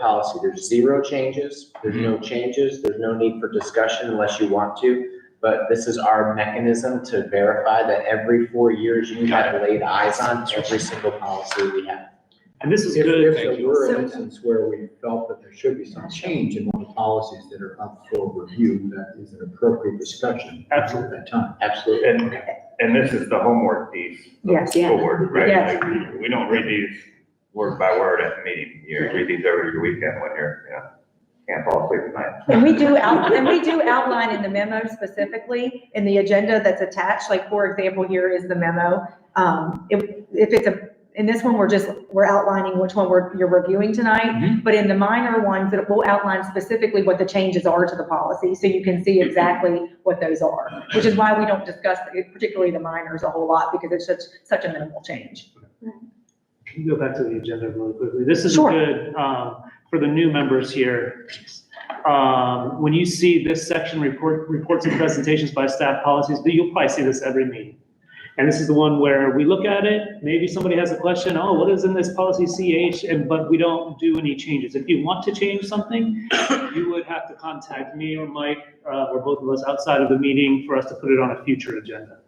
policy. There's zero changes, there's no Mm-hmm. changes, there's no need for discussion unless you want to. But this is our mechanism to verify that every four years you have laid eyes on every single policy we have. And this is If, good. if there were So- an instance where we felt that there should be some change in one of the policies that are up for review, that is an appropriate discussion. Absolutely. At that time. Absolutely. And, and this is the homework piece. of the Yes. Yeah. School board, right? Yes. Like, We don't read these word by word at the meeting. You read these over your weekend when you're, you know, can't fall asleep at night. And we do out, and we do outline in the memo specifically, in the agenda that's attached, like, for example, here is the memo. Um, if, if it's a, in this one, we're just, we're outlining which one we're, you're reviewing tonight. But in the minor ones, it will outline specifically what the changes are to the policy, so you can see exactly what those are. Which is why we don't discuss particularly the minors a whole lot, because it's such, such a minimal change. Can you go back to the agenda really quickly? This is Sure. good, um, for the new members here. Um, when you see this section, report, reports and presentations by staff policies, you'll probably see this every meeting. And this is the one where we look at it, maybe somebody has a question, oh, what is in this policy CH? And, but we don't do any changes. If you want to change something, you would have to contact me or Mike, uh, or both of us outside of the meeting for us to put it on a future agenda.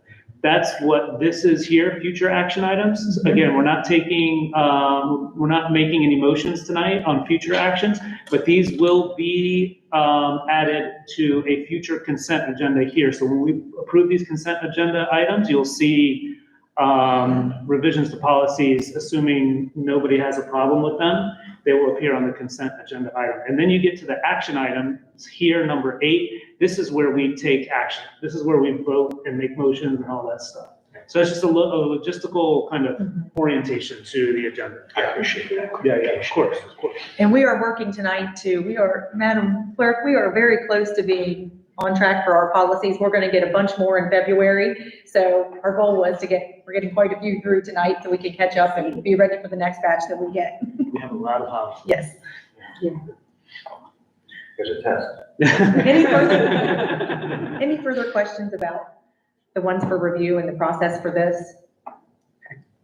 That's what this is here, future action items. Again, we're not taking, um, we're not making any motions tonight on future actions, but these will be, um, added to a future consent agenda here. So when we approve these consent agenda items, you'll see, um, revisions to policies, assuming nobody has a problem with them. They will appear on the consent agenda item. And then you get to the action items here, number eight, this is where we take action. This is where we vote and make motions and all that stuff. So it's just a lo- a logistical kind of orientation to the agenda. I appreciate that. Yeah, yeah, of course, of course. And we are working tonight to, we are, Madam Clerk, we are very close to being on track for our policies. We're going to get a bunch more in February. So our goal was to get, we're getting quite a few through tonight so we can catch up and be ready for the next batch that we get. We have a lot of policy. Yes. There's a test. Any further- Any further questions about the ones for review and the process for this?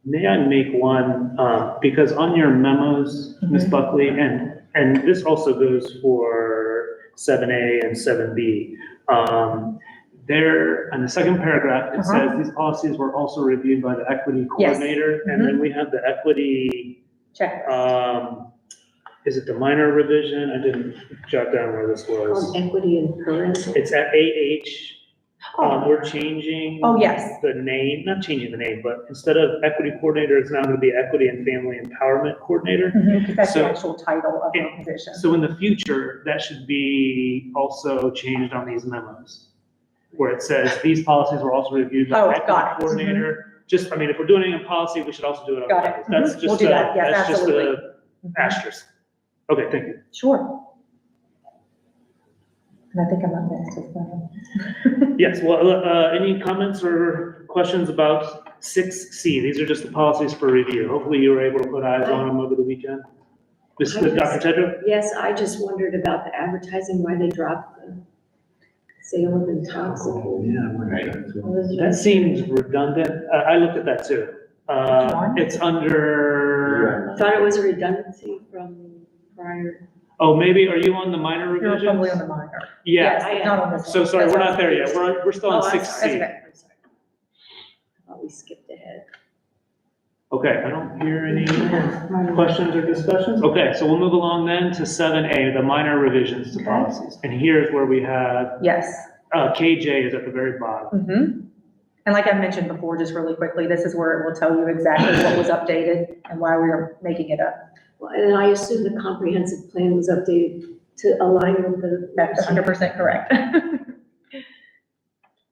May I make one, um, because on your memos, Mm-hmm. Ms. Buckley, and, and this also goes for seven A and seven B. Um, there, in the second paragraph, it Uh-huh. says these policies were also reviewed by the equity Yes. Mm-hmm. coordinator. And then we have the equity, Check. um, is it the minor revision? I didn't jot down where this was. On equity and parental. It's at AH, um, Oh, we're changing. oh, yes. The name, not changing the name, but instead of equity coordinator, it's now gonna be equity and family empowerment coordinator. Mhm, Because that's the So- actual title of the Yeah. position. So in the future, that should be also changed on these memos, where it says, these policies were also reviewed by Oh, equity got it. Mm-hmm. coordinator. Just, I mean, if we're doing it in policy, we should also do it on Got it. campus. That's Mhm. We'll just do a, that. Yes, that's just absolutely. a asterisk. Okay, thank you. Mm-hmm. Sure. And I think I'm up next as well. Yes, well, uh, any comments or questions about six C? These are just the policies for review. Hopefully you were able to put eyes on them over the weekend. This I is Dr. just- Tedrow? Yes, I just wondered about the advertising, why they dropped the sale of Oh, intoxicants. yeah, I wonder if that's what- That seems redundant. Uh, I, I looked at that too. Uh, it's under, Thought it was a redundancy from prior. oh, maybe, are you on the minor You're probably on the revisions? minor. Yeah, I am. Not on this one. so sorry, That's we're on not there yet. We're, we're still on Oh, I'm six sorry. C. That's I'm sorry. I thought we skipped ahead. Okay, I don't hear any questions or discussions? Okay, so we'll move along then to seven A, the minor revisions to Okay. policies. And here's where we have Yes. Uh, KJ is at the very bottom. Mhm. And like I mentioned before, just really quickly, this is where it will tell you exactly what was updated and why we are making it up. Well, And I assume the comprehensive plan was updated to align with the. That's 100% correct.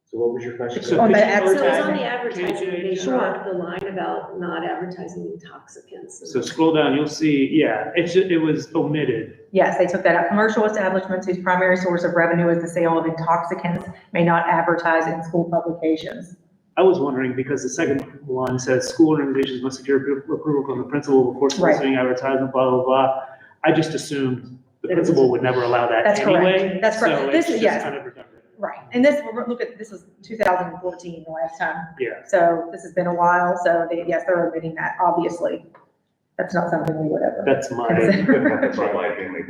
So what was your question? So On could the you So it was advertising. advertise- on the advertising, they KJ. dropped the line about not advertising intoxicants. So scroll down, you'll see, yeah, it's, ju- it was omitted. Yes, they took that out. Commercial establishments whose primary source of revenue is the sale of intoxicants may not advertise in school publications. I was wondering, because the second one says, school organizations must secure appro- approval from the principal before soliciting advertisement, blah, blah, blah. I just assumed the That it was- principal would never allow that That's correct. anyway. That's correct. So it's This is- just yes. kind of redundant. Right. And this, look at, this was 2014, the last time. Yeah, So this has been a while, so they, yes, they're omitting that, obviously. that's not something we would ever. That's my. consider. That's my opinion.